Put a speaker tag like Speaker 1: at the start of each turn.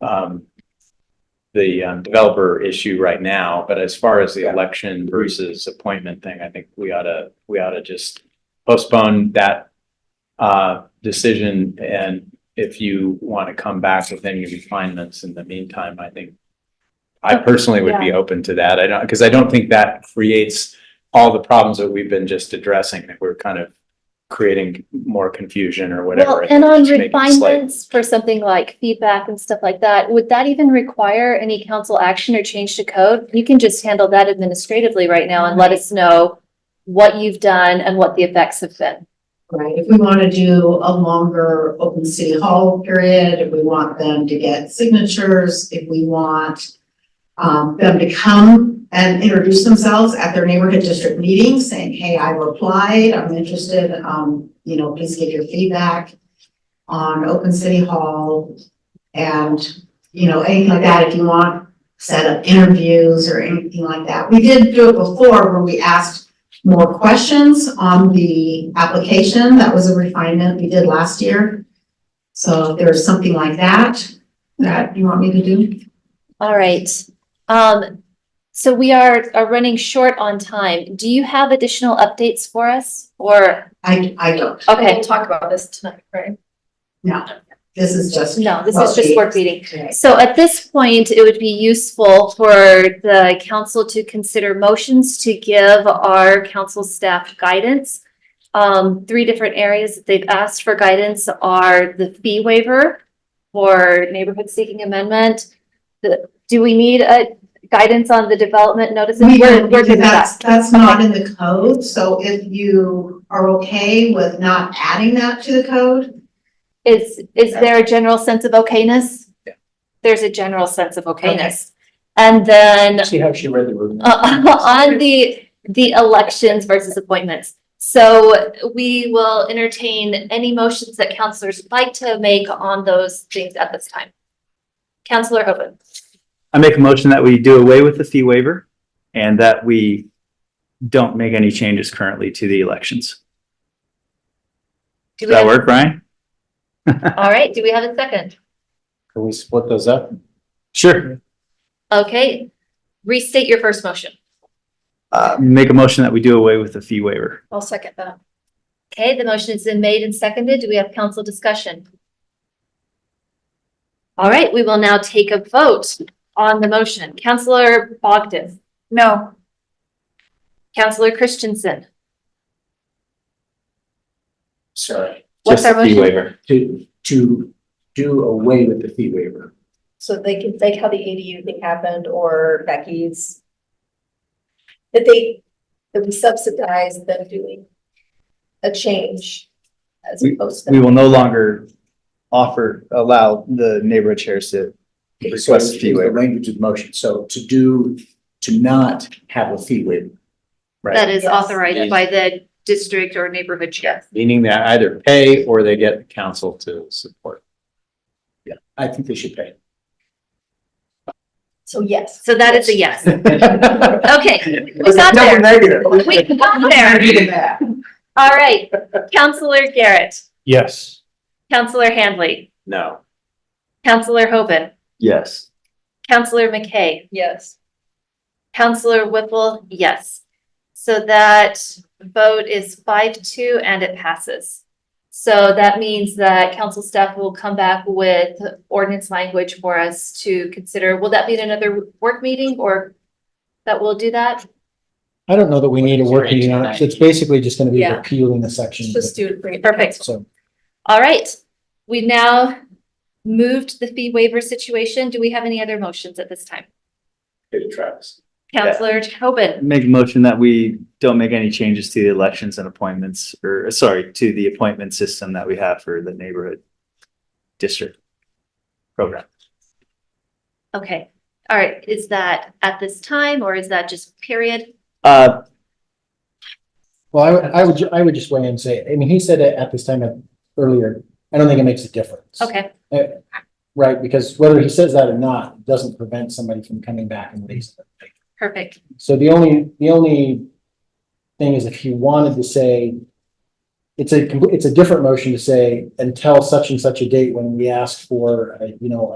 Speaker 1: um, the um, developer issue right now, but as far as the election versus appointment thing, I think we ought to, we ought to just postpone that uh, decision, and if you want to come back with any refinements in the meantime, I think I personally would be open to that. I don't, because I don't think that creates all the problems that we've been just addressing, that we're kind of creating more confusion or whatever.
Speaker 2: Well, and on
Speaker 1: Just make it slight.
Speaker 2: refinements for something like feedback and stuff like that, would that even require any council action or change to code? You can just handle that administratively right now and let us know what you've done and what the effects have been.
Speaker 3: Right, if we want to do a longer open city hall period, if we want them to get signatures, if we want um, them to come and introduce themselves at their neighborhood district meeting, saying, hey, I replied, I'm interested, um, you know, please give your feedback on open city hall and, you know, anything like that, if you want, set up interviews or anything like that. We did do it before where we asked more questions on the application. That was a refinement we did last year. So if there's something like that, that you want me to do?
Speaker 2: All right. Um, so we are, are running short on time. Do you have additional updates for us or,
Speaker 3: I, I don't.
Speaker 2: okay,
Speaker 4: We'll talk about this tonight, right?
Speaker 3: No, this is just.
Speaker 2: no, this is just work meeting.
Speaker 3: Okay.
Speaker 2: So at this point, it would be useful for the council to consider motions to give our council staff guidance. Um, three different areas that they've asked for guidance are the fee waiver for neighborhood seeking amendment. The, do we need a guidance on the development notices?
Speaker 3: We
Speaker 2: We're-
Speaker 3: don't,
Speaker 2: we're
Speaker 3: because
Speaker 2: good with
Speaker 3: that's,
Speaker 2: that.
Speaker 3: that's not in the code. So if you are okay with not adding that to the code,
Speaker 2: Is, is there a general sense of okayness?
Speaker 1: Yeah.
Speaker 2: There's a general sense of okayness. And then
Speaker 5: See how she read the room?
Speaker 2: Uh, on the, the elections versus appointments. So we will entertain any motions that counselors would like to make on those things at this time. Counselor Hoven,
Speaker 6: I make a motion that we do away with the fee waiver and that we don't make any changes currently to the elections.
Speaker 2: do
Speaker 6: Does
Speaker 2: we
Speaker 6: that
Speaker 2: have,
Speaker 6: work, Brian?
Speaker 2: all right, do we have a second?
Speaker 1: Can we split those up?
Speaker 6: Sure.
Speaker 2: Okay, restate your first motion.
Speaker 6: Uh, make a motion that we do away with the fee waiver.
Speaker 4: I'll second that.
Speaker 2: Okay, the motion has been made and seconded. Do we have council discussion? All right, we will now take a vote on the motion. Counselor Bogdan,
Speaker 4: No.
Speaker 2: Counselor Christensen,
Speaker 5: Sorry,
Speaker 2: What's
Speaker 1: Just
Speaker 2: our
Speaker 1: the fee
Speaker 2: motion?
Speaker 1: waiver.
Speaker 5: to, to do away with the fee waiver.
Speaker 4: So they could, like how the ADU thing happened or Becky's. That they, that we subsidize them doing a change as opposed
Speaker 6: We
Speaker 4: to.
Speaker 6: will no longer offer, allow the neighborhood chairs to request
Speaker 5: So
Speaker 6: a fee
Speaker 5: it's the
Speaker 6: waiver.
Speaker 5: Language of the motion, so to do, to not have a fee waiver.
Speaker 2: that is
Speaker 4: Yes.
Speaker 2: authorized by the district or neighborhood chair.
Speaker 1: Meaning they either pay or they get council to support.
Speaker 5: I think they should pay.
Speaker 4: So yes.
Speaker 2: So that is a yes.
Speaker 5: We
Speaker 2: Okay, we got there.
Speaker 5: Negative.
Speaker 2: We got there. All right. Counselor Garrett,
Speaker 6: Yes.
Speaker 2: Counselor Handley,
Speaker 1: No.
Speaker 2: Counselor Hoban,
Speaker 6: Yes.
Speaker 2: Counselor McKay,
Speaker 4: Yes.
Speaker 2: Counselor Whipple, yes. So that vote is five two and it passes. So that means that council staff will come back with ordinance language for us to consider. Will that be in another work meeting or that we will do that?
Speaker 7: I don't know that we need a work meeting on it, 'cause it's basically just gonna be
Speaker 4: Yeah.
Speaker 7: repealing the section.
Speaker 4: Just do it. bring it back.
Speaker 2: Perfect.
Speaker 7: So,
Speaker 2: All right, we've now moved the fee waiver situation. Do we have any other motions at this time?
Speaker 1: Travis.
Speaker 2: Counselor Tobin,
Speaker 6: Make a motion that we don't make any changes to the elections and appointments, or sorry, to the appointment system that we have for the neighborhood district program.
Speaker 2: okay. All right, is that at this time or is that just period?
Speaker 6: Uh,
Speaker 7: well, I would, I would, ju- I would just weigh in and say, I mean, he said it at this time of- earlier, I don't think it makes a difference.
Speaker 2: Okay,
Speaker 7: Right, because whether he says that or not, doesn't prevent somebody from coming back and raising it.
Speaker 2: perfect.
Speaker 7: So the only, the only thing is if you wanted to say, it's a, complete- it's a different motion to say, until such and such a date when we ask for, uh, you know,